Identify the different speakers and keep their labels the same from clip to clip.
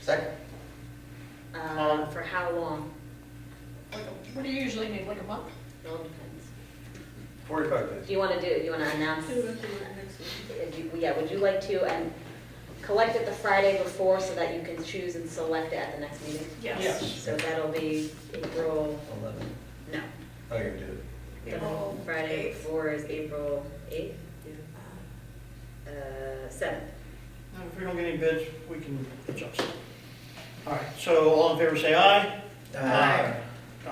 Speaker 1: Second.
Speaker 2: Uh, for how long?
Speaker 3: Like, What do you usually need, like a month?
Speaker 2: It all depends.
Speaker 1: Forty-five days.
Speaker 2: Do you wanna do, it? you wanna announce? If you- Yeah, would you like to, and collect it the Friday before so that you can choose and select it at the next meeting?
Speaker 3: Yes.
Speaker 1: Yes.
Speaker 2: So that'll be April,
Speaker 1: Eleven.
Speaker 2: no,
Speaker 1: Oh, you did it.
Speaker 2: the Friday before is April eighth? Uh, seventh.
Speaker 4: And if we don't get any bids, we can adjust. All right, so all in favor, say aye.
Speaker 1: Aye.
Speaker 4: Aye.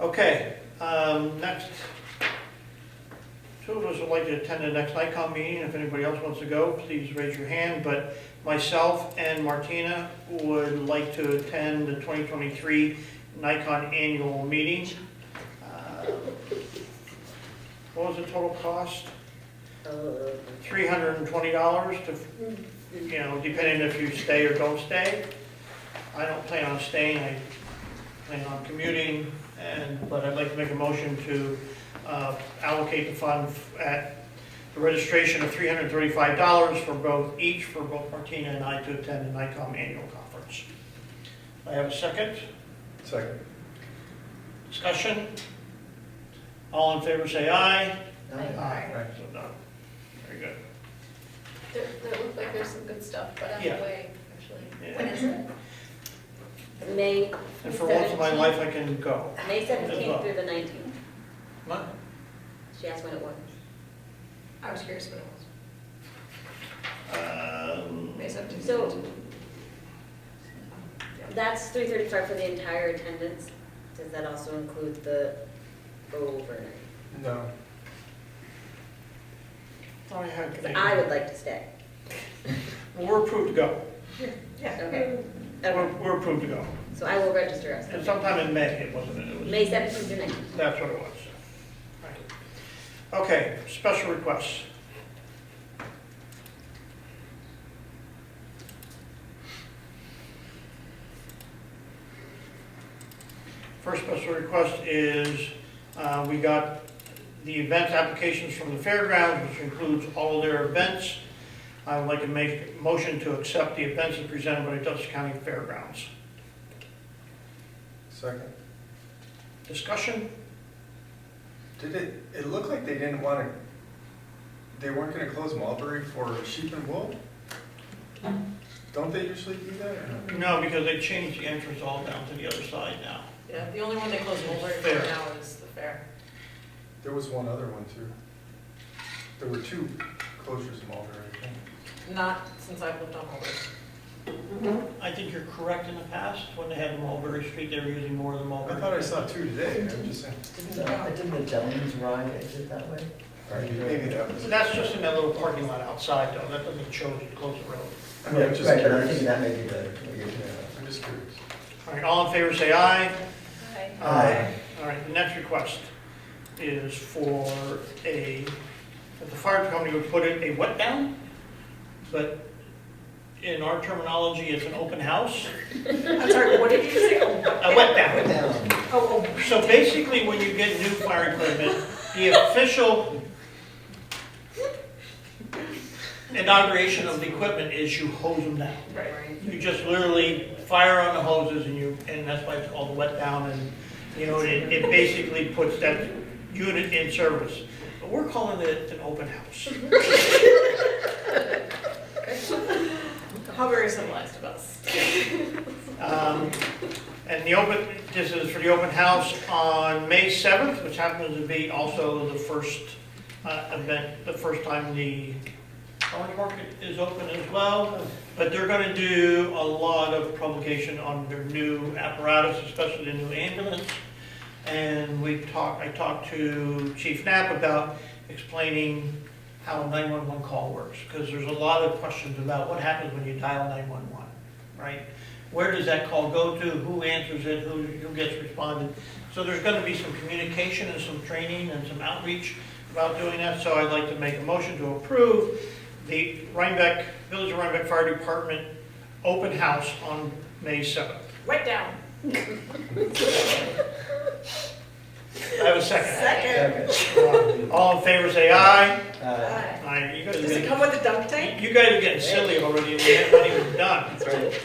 Speaker 4: Okay, um, next, two of us would like to attend the next NICOM meeting. If anybody else wants to go, please raise your hand. But myself and Martina would like to attend the 2023 Nikon annual meeting. Uh, What was the total cost?
Speaker 2: Oh,
Speaker 4: $320 to you know, depending if you stay or don't stay. I don't plan on staying, I plan on commuting, and, but I'd like to make a motion to uh, allocate the fund at the registration of three hundred and thirty-five dollars for both, each for both Martina and I to attend the NICOM annual conference. I have a second,
Speaker 1: Second.
Speaker 4: discussion? All in favor, say aye.
Speaker 1: Aye.
Speaker 4: So done. Very good.
Speaker 3: There, there looked like there's some good stuff, but
Speaker 4: Yeah.
Speaker 3: way, actually.
Speaker 4: Yeah.
Speaker 3: When is it?
Speaker 2: May,
Speaker 4: And for once in my life, I can go.
Speaker 2: May seventeenth through the nineteenth.
Speaker 4: What?
Speaker 2: She asked when it was.
Speaker 3: I was curious what it was.
Speaker 4: Um,
Speaker 3: May seventeenth.
Speaker 2: So that's three thirty-five for the entire attendance. Does that also include the overnight?
Speaker 1: No.
Speaker 4: Thought I had.
Speaker 2: Because I would like to stay.
Speaker 4: Well, We're approved to go.
Speaker 2: Okay.
Speaker 4: We're,
Speaker 2: Okay,
Speaker 4: we're approved to go.
Speaker 2: so I will register us.
Speaker 4: Mm. And sometime in May, it wasn't, it was,
Speaker 2: May seventeenth through nineteenth.
Speaker 4: that's what it was. Right. Okay, special requests. First special request is, uh, we got the event applications from the fairgrounds, which includes all their events. I would like to make a motion to accept the events as presented by the Dutchess County Fairgrounds.
Speaker 1: Second.
Speaker 4: Discussion?
Speaker 1: Did it, it looked like they didn't want to, they weren't going to close Mulberry for sheep and wool? Don't they usually do that or no?
Speaker 4: No, because they changed the entrance all down to the other side now.
Speaker 5: Yeah, the only one they close over for
Speaker 4: Fair.
Speaker 5: now is the fair.
Speaker 1: There was one other one too. There were two closures of Mulberry, I think.
Speaker 5: Not since I've lived on Mulberry.
Speaker 4: I think you're correct in the past, when they had Mulberry Street, they were using more of the
Speaker 1: I
Speaker 4: Mulberry.
Speaker 1: thought I saw two today, I'm just saying.
Speaker 6: Didn't the- didn't the Jones ride exit that way?
Speaker 1: Maybe maybe that was.
Speaker 4: So That's just in that little parking lot outside though, that doesn't show that you close the road.
Speaker 1: I mean, I'm just
Speaker 6: Right, but I think
Speaker 1: curious.
Speaker 6: that may be the,
Speaker 1: Yeah, I'm just curious.
Speaker 4: All right, all in favor, say aye.
Speaker 6: Aye.
Speaker 4: All right, the next request is for a, that the fire company would put in a wet down, but in our terminology, it's an open house.
Speaker 5: I'm sorry, what did you say?
Speaker 4: A wet down.
Speaker 6: Put down.
Speaker 5: Oh, oh,
Speaker 4: So basically, when you get new fire equipment, the official inauguration of the equipment is you hose them down.
Speaker 5: right.
Speaker 4: You just literally fire on the hoses and you, and that's why it's called wet down and, you know, it, it basically puts that unit in service. But we're calling it an open house.
Speaker 5: How very civilized of us.
Speaker 4: Um, And the open, this is for the open house on May 7th, which happens to be also the first uh, event, the first time the farmer's market is open as well. But they're going to do a lot of publication on their new apparatus, especially the new ambulance. And we talked, I talked to Chief Knapp about explaining how a 911 call works. Because there's a lot of questions about what happens when you dial 911, right? Where does that call go to? Who answers it? Who, who gets responded? So there's gonna be some communication and some training and some outreach about doing that. So I'd like to make a motion to approve the Rhinebeck, Village of Rhinebeck Fire Department open house on May seventh.
Speaker 5: Wet down.
Speaker 4: I have a second.
Speaker 6: Okay.
Speaker 4: All in favor, say aye.
Speaker 6: Uh,
Speaker 4: Aye. You guys are
Speaker 5: Does it
Speaker 4: getting,
Speaker 5: come with a dunk tank?
Speaker 4: you guys are getting silly already and we haven't even done.